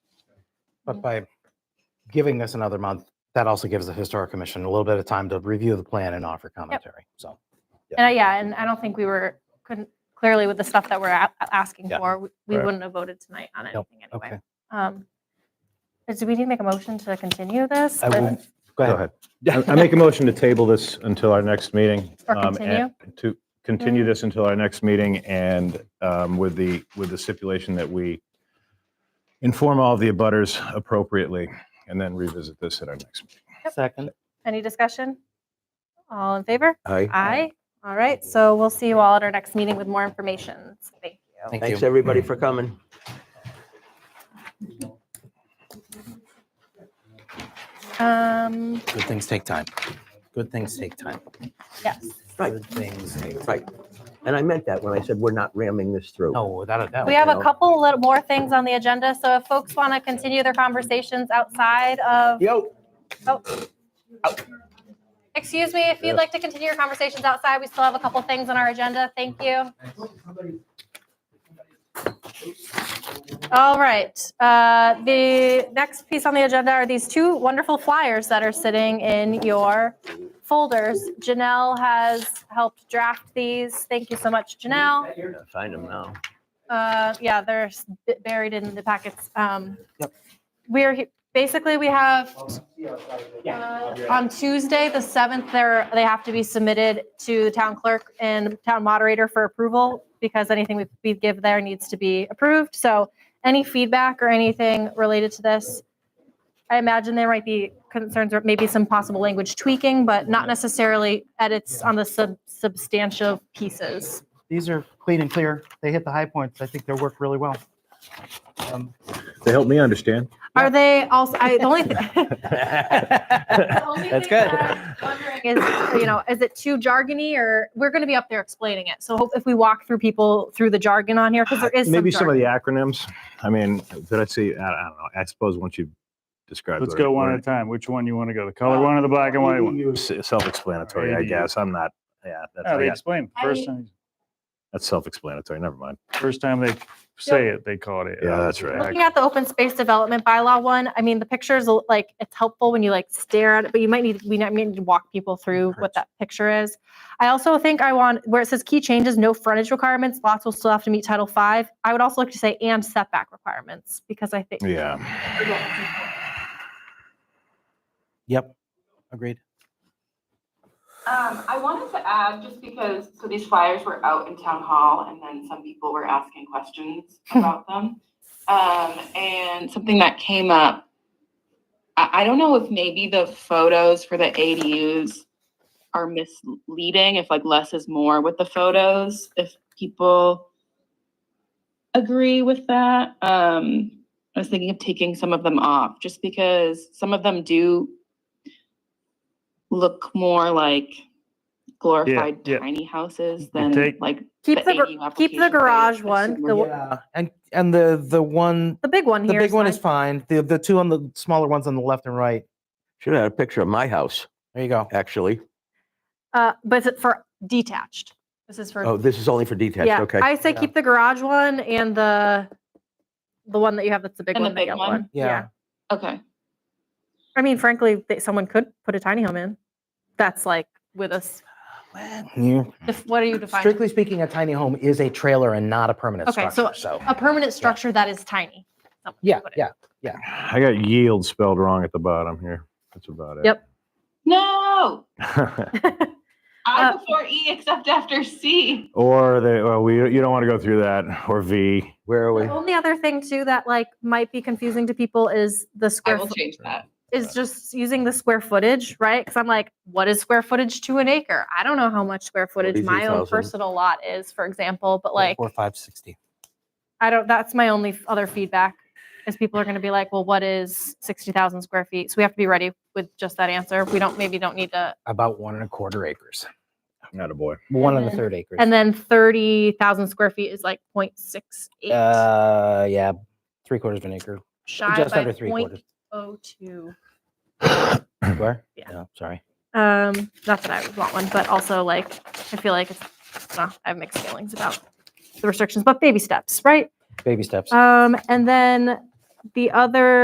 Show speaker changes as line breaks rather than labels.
Mm-hmm.
But by giving us another month, that also gives the historic commission a little bit of time to review the plan and offer commentary. So,
And I- yeah, and I don't think we were, couldn't, clearly with the stuff that we're a- asking
Yeah.
for, we- we
Correct.
wouldn't have voted tonight on
Nope.
anything anyway.
okay.
Um, but Do we need to make a motion to continue this?
I will, go
Go
ahead.
ahead. I I make a motion to table this until our next meeting.
Or
um, and- To continue this until our next meeting and um, with the, with the stipulation that we inform all the abutters appropriately and then revisit this at our next meeting.
Second.
Any discussion? All in favor?
Aye.
Aye. All right, so we'll see you all at our next meeting with more information. Thank you.
Thank you. Mm.
Thanks, everybody, for coming.
Um,
Good things take time. Good things take time.
yes.
Right.
Good things take.
Right. And I meant that when I said we're not ramming this through.
No, without a doubt.
We have
no.
a couple little more things on the agenda, so if folks want to continue their conversations outside of
Yo,
Excuse me, if you'd like to continue your conversations outside, we still have a couple things on our agenda. Thank you. All right, uh, the next piece on the agenda are these two wonderful flyers that are sitting in your folders. Janelle has helped draft these. Thank you so much, Janelle.
Find them now.
Uh, yeah, they're s- bu- buried in the packets. Um,
Yep.
we're, he- basically, we have, uh, on Tuesday, the seventh, they're, they have to be submitted to the town clerk and town moderator for approval because anything we, we give there needs to be approved. So any feedback or anything related to this? I imagine there might be concerns or maybe some possible language tweaking, but not necessarily edits on the sub, substantial pieces.
These are clean and clear. They hit the high points. I think they work really well. Um,
To help me understand.
Are they also, I, the only, th- the only
That's
thing
good.
that I'm wondering Is, you know, is it too jargony or, we're gonna be up there explaining it, so hope if we walk through people through the jargon on here, because there is some
Maybe some of the
jargon.
acronyms. I mean, did I see, I I don't know. I suppose once you've described.
Let's
what it-
go one
what
at a
it-
time. Which one you want to go? The color one or the black and white one?
ADU is Self-explanatory, I
ADU.
guess. I'm not, yeah, that's,
No,
I
they
got-
explain.
I-
First time,
that's self-explanatory. Never mind.
first time they say it, they call it.
Yeah, that's right.
Looking at the open space development bylaw one, I mean, the pictures, l- like, it's helpful when you like stare at it, but you might need, we might need to walk people through what that picture is. I also think I want, where it says key changes, no frontage requirements, lots will still have to meet Title Five. I would also like to say and setback requirements, because I think
Yeah.
Yep. Agreed.
Um, I wanted to add, just because, so these flyers were out in town hall and then some people were asking questions about them. Um, and something that came up, I, I don't know if maybe the photos for the ADUs are misleading, if like less is more with the photos, if people agree with that. Um, I was thinking of taking some of them off, just because some of them do look more like glorified
yeah.
tiny houses than
take-
like
keep
The
the, gar-
AU
keep the
application
garage
phase,
one, the,
assuming-
w-
Yeah. And, and the, the one,
the big one
the
here.
big one is fine. The, the two on the smaller ones on the left and right.
Should have had a picture of my house,
There you go.
actually.
Uh, but is it for detached? This is for.
Oh, this is only for detached,
Yeah,
okay.
I say
Yeah.
keep the garage one and the, the one that you have that's the big
And the
one, the
big
yellow
one?
one.
Yeah.
Okay.
I mean, frankly, they- someone could put a tiny home in. That's like with us,
Yeah.
if, what are you defining?
Strictly speaking, a tiny home is a trailer and not a permanent
Okay,
structure.
so-
So,
A permanent structure that is tiny. someone
yeah,
put it.
yeah.
I got yield spelled wrong at the bottom here. That's about it.
Yep.
No,
Yep.
I
Uh,
before E except after C.
or they, well, we, you don't want to go through that. Or V.
Where are we?
The only other thing too that like might be confusing to people is the
I
square.
will
foot-
change that.
is just using the square footage, right? Because I'm like, what is square footage to an acre? I don't know how much square footage my own
42,000.
personal lot is, for example, but like,
Four, five, sixty.
I don't, that's my only f- other feedback is people are going to be like, well, what is 60,000 square feet? So we have to be ready with just that answer. We don't, maybe don't need to.
About one and a quarter acres.
Not a boy.
One and a
then-
third acres.
And then 30,000 square feet is like 0.68
Uh, yeah, three quarters of an acre.
shy
just
by
under three quarters.
0.02.
Where?
Yeah.
No, sorry.
Um, not that I would want one, but also like I feel like it's well, I have mixed feelings about the restrictions, but baby steps, right?
Baby steps.
Um, and then the other